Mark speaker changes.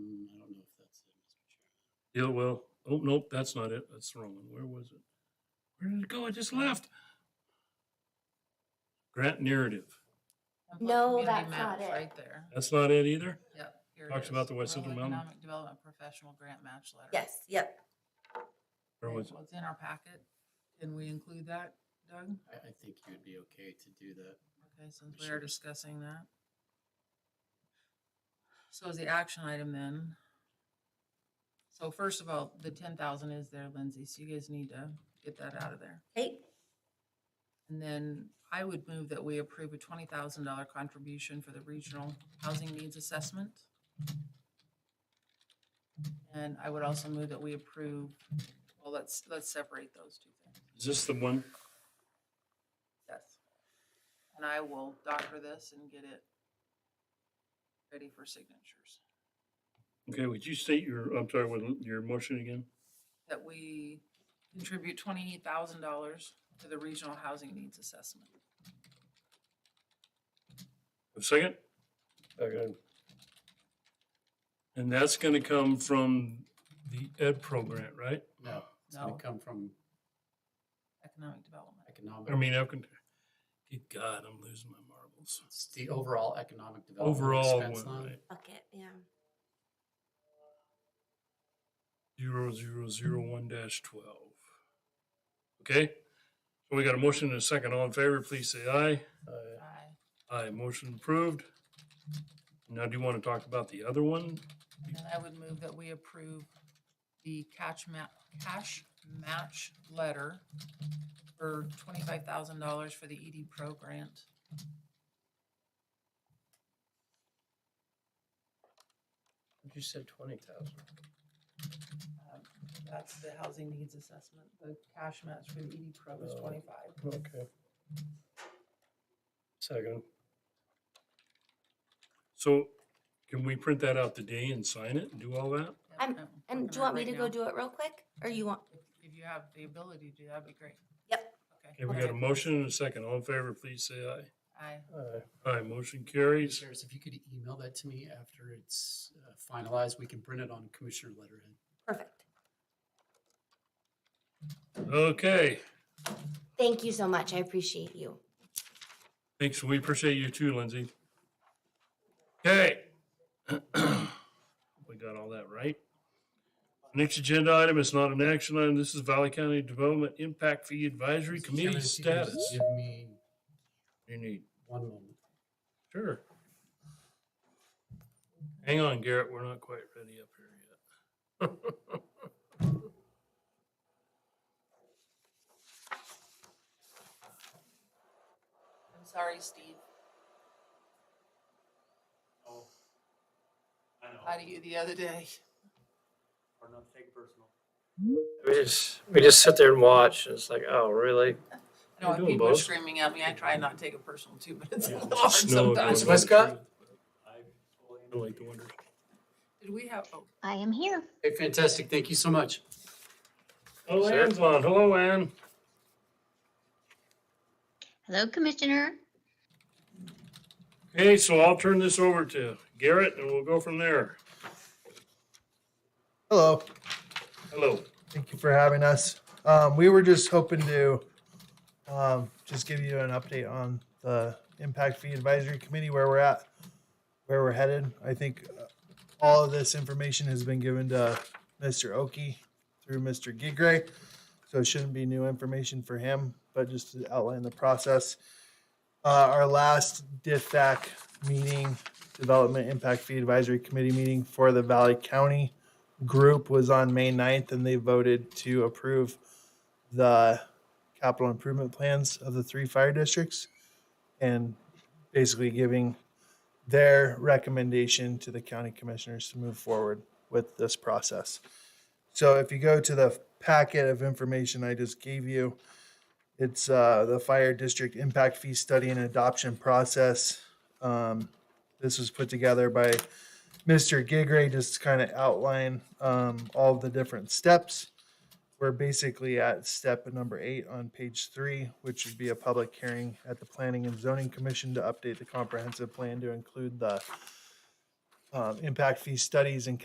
Speaker 1: Mm,
Speaker 2: Yeah, well, oh, nope, that's not it. That's the wrong one. Where was it? Where did it go? I just left. Grant narrative.
Speaker 3: Template
Speaker 4: No,
Speaker 3: community
Speaker 4: that's
Speaker 3: maps
Speaker 4: not it.
Speaker 3: Right there.
Speaker 2: That's not it either?
Speaker 3: Yep. here it
Speaker 2: Talks about
Speaker 3: is.
Speaker 2: the West
Speaker 3: Rural
Speaker 2: Central Mountain.
Speaker 3: Economic Development Professional Grant Match Letter.
Speaker 4: Yes, yep.
Speaker 2: Where
Speaker 3: Okay,
Speaker 2: was it?
Speaker 3: well, It's in our packet. Can we include that, Doug?
Speaker 1: I, I think you would be okay to do that.
Speaker 3: Okay, since we
Speaker 1: Sure.
Speaker 3: are discussing that. So is the action item then? So first of all, the ten thousand is there, Lindsay, so you guys need to get that out of there.
Speaker 4: Hey,
Speaker 3: And then I would move that we approve a twenty thousand dollar contribution for the Regional Housing Needs Assessment. And I would also move that we approve, well, let's, let's separate those two things.
Speaker 2: Is this the one?
Speaker 3: Yes. And I will doctor this and get it ready for signatures.
Speaker 2: Okay, would you state your, I'm sorry, what, your motion again?
Speaker 3: That we contribute twenty-eight thousand dollars to the Regional Housing Needs Assessment.
Speaker 2: A second?
Speaker 5: Second.
Speaker 2: And that's gonna come from the Ed Pro grant, right?
Speaker 1: No, it's gonna
Speaker 3: No.
Speaker 1: come from
Speaker 3: Economic Development.
Speaker 2: I
Speaker 1: economic,
Speaker 2: mean, I can, good God, I'm losing my marbles.
Speaker 1: it's the overall economic development.
Speaker 2: Overall
Speaker 1: expense
Speaker 2: one,
Speaker 1: line.
Speaker 2: right?
Speaker 4: fuck it, yeah.
Speaker 2: Zero, zero, zero, one dash twelve. Okay? So we got a motion and a second. All in favor, please say aye.
Speaker 5: Aye.
Speaker 3: Aye.
Speaker 2: Aye, motion approved. Now, do you want to talk about the other one?
Speaker 3: And then I would move that we approve the catch ma- cash match letter for twenty-five thousand dollars for the ED Pro grant.
Speaker 5: You said twenty thousand.
Speaker 3: Um, That's the housing needs assessment. The cash match for the ED Pro is
Speaker 5: Oh.
Speaker 3: twenty-five.
Speaker 5: Okay. Second.
Speaker 2: So can we print that out today and sign it and do all that?
Speaker 4: I'm-
Speaker 3: Yep, I'm
Speaker 4: Um, And
Speaker 3: working
Speaker 4: do you
Speaker 3: on it
Speaker 4: want me
Speaker 3: right
Speaker 4: to go
Speaker 3: now.
Speaker 4: do it real quick? Or you want,
Speaker 3: If- If you have the ability to, that'd be great.
Speaker 4: Yep.
Speaker 2: Okay, we got a motion and a second. All in favor, please say aye.
Speaker 3: Aye.
Speaker 2: uh,
Speaker 5: Aye.
Speaker 2: Aye, motion
Speaker 1: Hey,
Speaker 2: carries.
Speaker 1: Sheriff, if you could email that to me after it's uh, finalized, we can print it on commissioner letterhead.
Speaker 4: perfect.
Speaker 2: Okay,
Speaker 4: Thank you so much. I appreciate you.
Speaker 2: thanks. We appreciate you too, Lindsay. Okay. We got all that right. Next agenda item is not an action item. This is Valley County Development Impact Fee Advisory
Speaker 1: Mr.
Speaker 2: Committee
Speaker 1: Chairman, if you could just
Speaker 2: status.
Speaker 1: Give me
Speaker 2: You need,
Speaker 1: one moment.
Speaker 2: sure. Hang on, Garrett, we're not quite ready up here yet.
Speaker 3: I'm sorry, Steve. How do you the other day?
Speaker 5: We just, we just sit there and watch, and it's like, oh, really?
Speaker 3: I know
Speaker 2: You're
Speaker 3: when
Speaker 2: doing
Speaker 3: people are
Speaker 2: both.
Speaker 3: screaming at me, I try not to take it personal too, but it's a
Speaker 1: Yeah.
Speaker 3: little hard
Speaker 2: Snow going
Speaker 3: sometimes.
Speaker 2: by the
Speaker 1: Westcott?
Speaker 2: tree. I like the wonders.
Speaker 3: Did we have, oh,
Speaker 6: I am here.
Speaker 1: Hey, fantastic. Thank you so much.
Speaker 2: Oh,
Speaker 5: Sir?
Speaker 2: Ann's on. Hello, Ann.
Speaker 6: Hello, Commissioner.
Speaker 2: Okay, so I'll turn this over to Garrett and we'll go from there.
Speaker 7: Hello,
Speaker 2: Hello.
Speaker 7: thank you for having us. Um, we were just hoping to um, just give you an update on the Impact Fee Advisory Committee, where we're at, where we're headed. I think uh, all of this information has been given to Mr. Oki through Mr. Gigray, so it shouldn't be new information for him, but just to outline the process. Uh, our last DIFAC meeting, Development Impact Fee Advisory Committee meeting for the Valley County group was on May 9th and they voted to approve the capital improvement plans of the three fire districts and basically giving their recommendation to the county commissioners to move forward with this process. So if you go to the packet of information I just gave you, it's uh, the fire district impact fee study and adoption process. Um, this was put together by Mr. Gigray just kind of outline um, all the different steps. We're basically at step number eight on page three, which would be a public hearing at the Planning and Zoning Commission to update the comprehensive plan to include the um, impact fee studies and